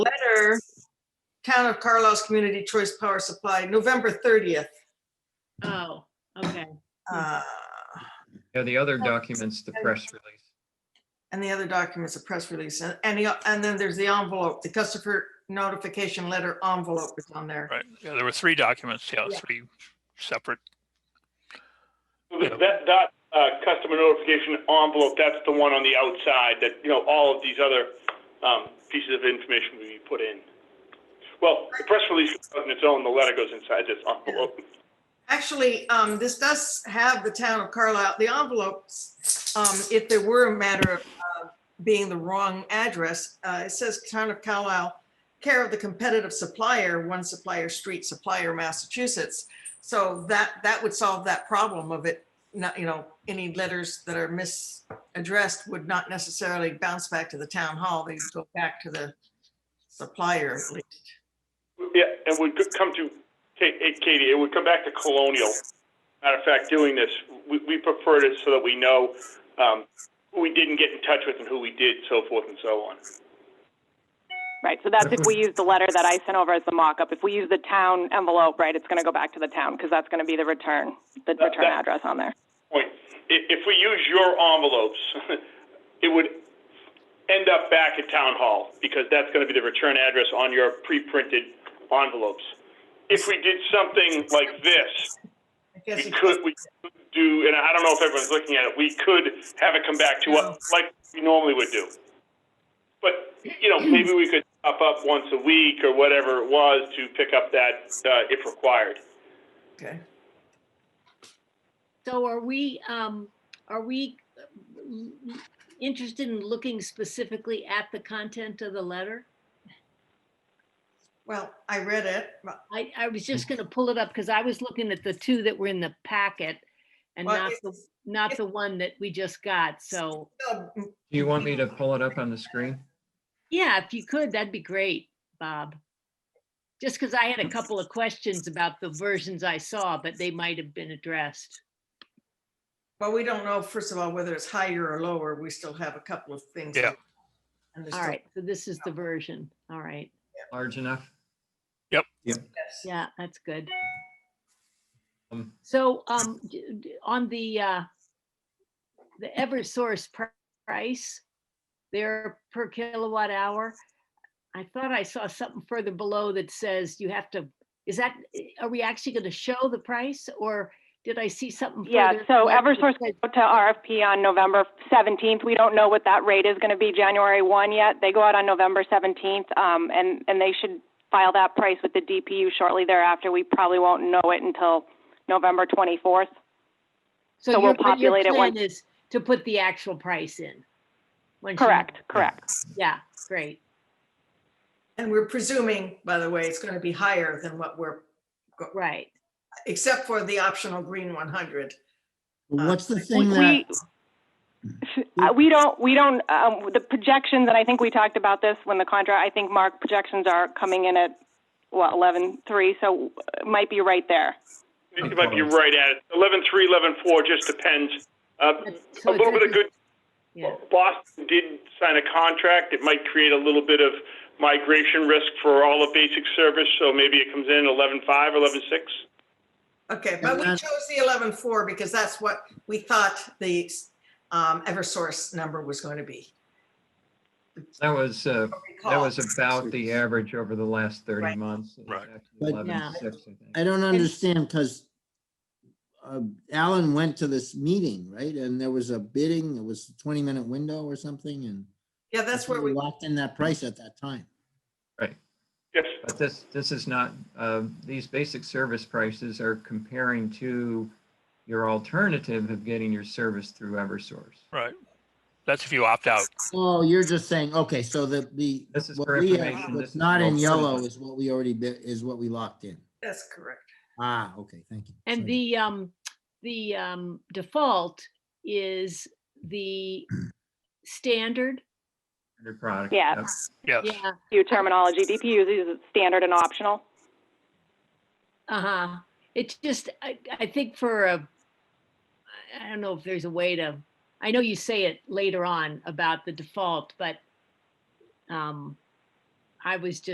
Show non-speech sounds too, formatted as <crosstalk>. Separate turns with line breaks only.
Center, Town of Carlos Community Choice Power Supply, November 30th.
Oh, okay.
Uh,
Yeah, the other documents, the press release.
And the other documents, a press release, and, and the- and then there's the envelope, the customer notification letter envelope is on there.
Right, yeah, there were three documents, yeah,
Yeah.
three separate,
That, that, uh, customer notification envelope, that's the one on the outside that, you know, all of these other, um, pieces of information will be put in. Well, the press release goes on its own, the letter goes inside this envelope.
Actually, um, this does have the town of Carlisle, the envelopes, um, if there were a matter of uh, being the wrong address, uh, it says town of Carlisle, care of the competitive supplier, one supplier street supplier, Massachusetts. So that, that would solve that problem of it, not, you know, any letters that are misaddressed would not necessarily bounce back to the town hall. They'd go back to the supplier. at least.
Yeah, and would come to, Ka- eh, Katie, it would come back to Colonial. Matter of fact, doing this, we, we preferred it so that we know, um, who we didn't get in touch with and who we did, so forth and so on.
Right, so that's
<laughs>
if we use the letter that I sent over as the mock-up. If we use the town envelope, right, it's gonna go back to the town, because that's gonna be the return, the
that-
return address on there.
point. If, if we use your envelopes, <laughs> it would end up back at town hall because that's going to be the return address on your pre-printed envelopes. If we did something like this,
I guess
we
it-
could, we could do, and I don't know if everyone's looking at it, we could have it come back to us like we normally would do. But, you know, maybe we could up up once a week or whatever it was to pick up that, uh, if required.
Okay.
So are we, um, are we uh, l- l- interested in looking specifically at the content of the letter?
Well, I read it, but
I, I was just gonna pull it up because I was looking at the two that were in the packet and
Well,
not the,
it's-
not the one that we just got, so,
um,
Do you want me to pull it up on the screen?
yeah, if you could, that'd be great, Bob. Just because I had a couple of questions about the versions I saw, but they might have been addressed.
Well, we don't know, first of all, whether it's higher or lower. We still have a couple of things.
Yeah.
And there's
All
still-
right, so this is the version, all right,
Large enough?
yes.
yeah, that's good.
Um,
So, um, d- d- on the, uh, the Eversource pr- price, their per kilowatt hour, I thought I saw something further below that says you have to, is that, are we actually gonna show the price or did I see something?
Yeah,
further
so
below that
Eversource
said-
go to RFP on November seventeenth. We don't know what that rate is gonna be January one yet. They go out on November seventeenth, um, and, and they should file that price with the DPU shortly thereafter. We probably won't know it until November twenty-fourth. so we'll
your- but your
populate it
plan
once-
Is to put the actual price in? once you-
Correct, correct.
Yeah, great.
And we're presuming, by the way, it's going to be higher than what we're,
Right.
except for the optional green 100. Uh,
What's the
We-
thing that,
We, uh, we don't, we don't, um, the projections, and I think we talked about this when the contract, I think Mark, projections are coming in at, what, eleven-three, so it might be right there.
You might be right at it. Eleven three, eleven four, just depends. Uh,
That's-
a
so it's
little bit of
every-
good
yeah.
Boston did sign a contract. It might create a little bit of migration risk for all of basic service, so maybe it comes in eleven five, eleven six.
Okay, but we
And that-
chose the 11.4 because that's what we thought the um, Eversource number was going to be.
That was, uh, that
Recall.
was about the average over the last thirty
Right.
months. It was
Right.
actually
But-
11.6, I think.
I don't understand, because Alan went to this meeting, right? And there was a bidding, it was a 20-minute window or something, and
Yeah, that's where we,
Locked in that price at that time.
Yes,
But this, this is not, uh, these basic service prices are comparing to your alternative of getting your service through Eversource.
right. That's if you opt out.
Oh, you're just saying, okay, so the, the.
This is
what
for
we have-
information, this
What's
is
not in
all-
yellow is what we already bid, is what we locked in.
that's correct.
Ah, okay, thank you.
And
Sorry.
the, um, the, um, default is the standard.
Your product.
Yeah.
Yep.
Yes,
Yeah,
New terminology, DPUs is standard and optional.
uh-huh. It's just, I, I think for a, I- I don't know if there's a way to, I know you say it later on about the default, but, um, I was just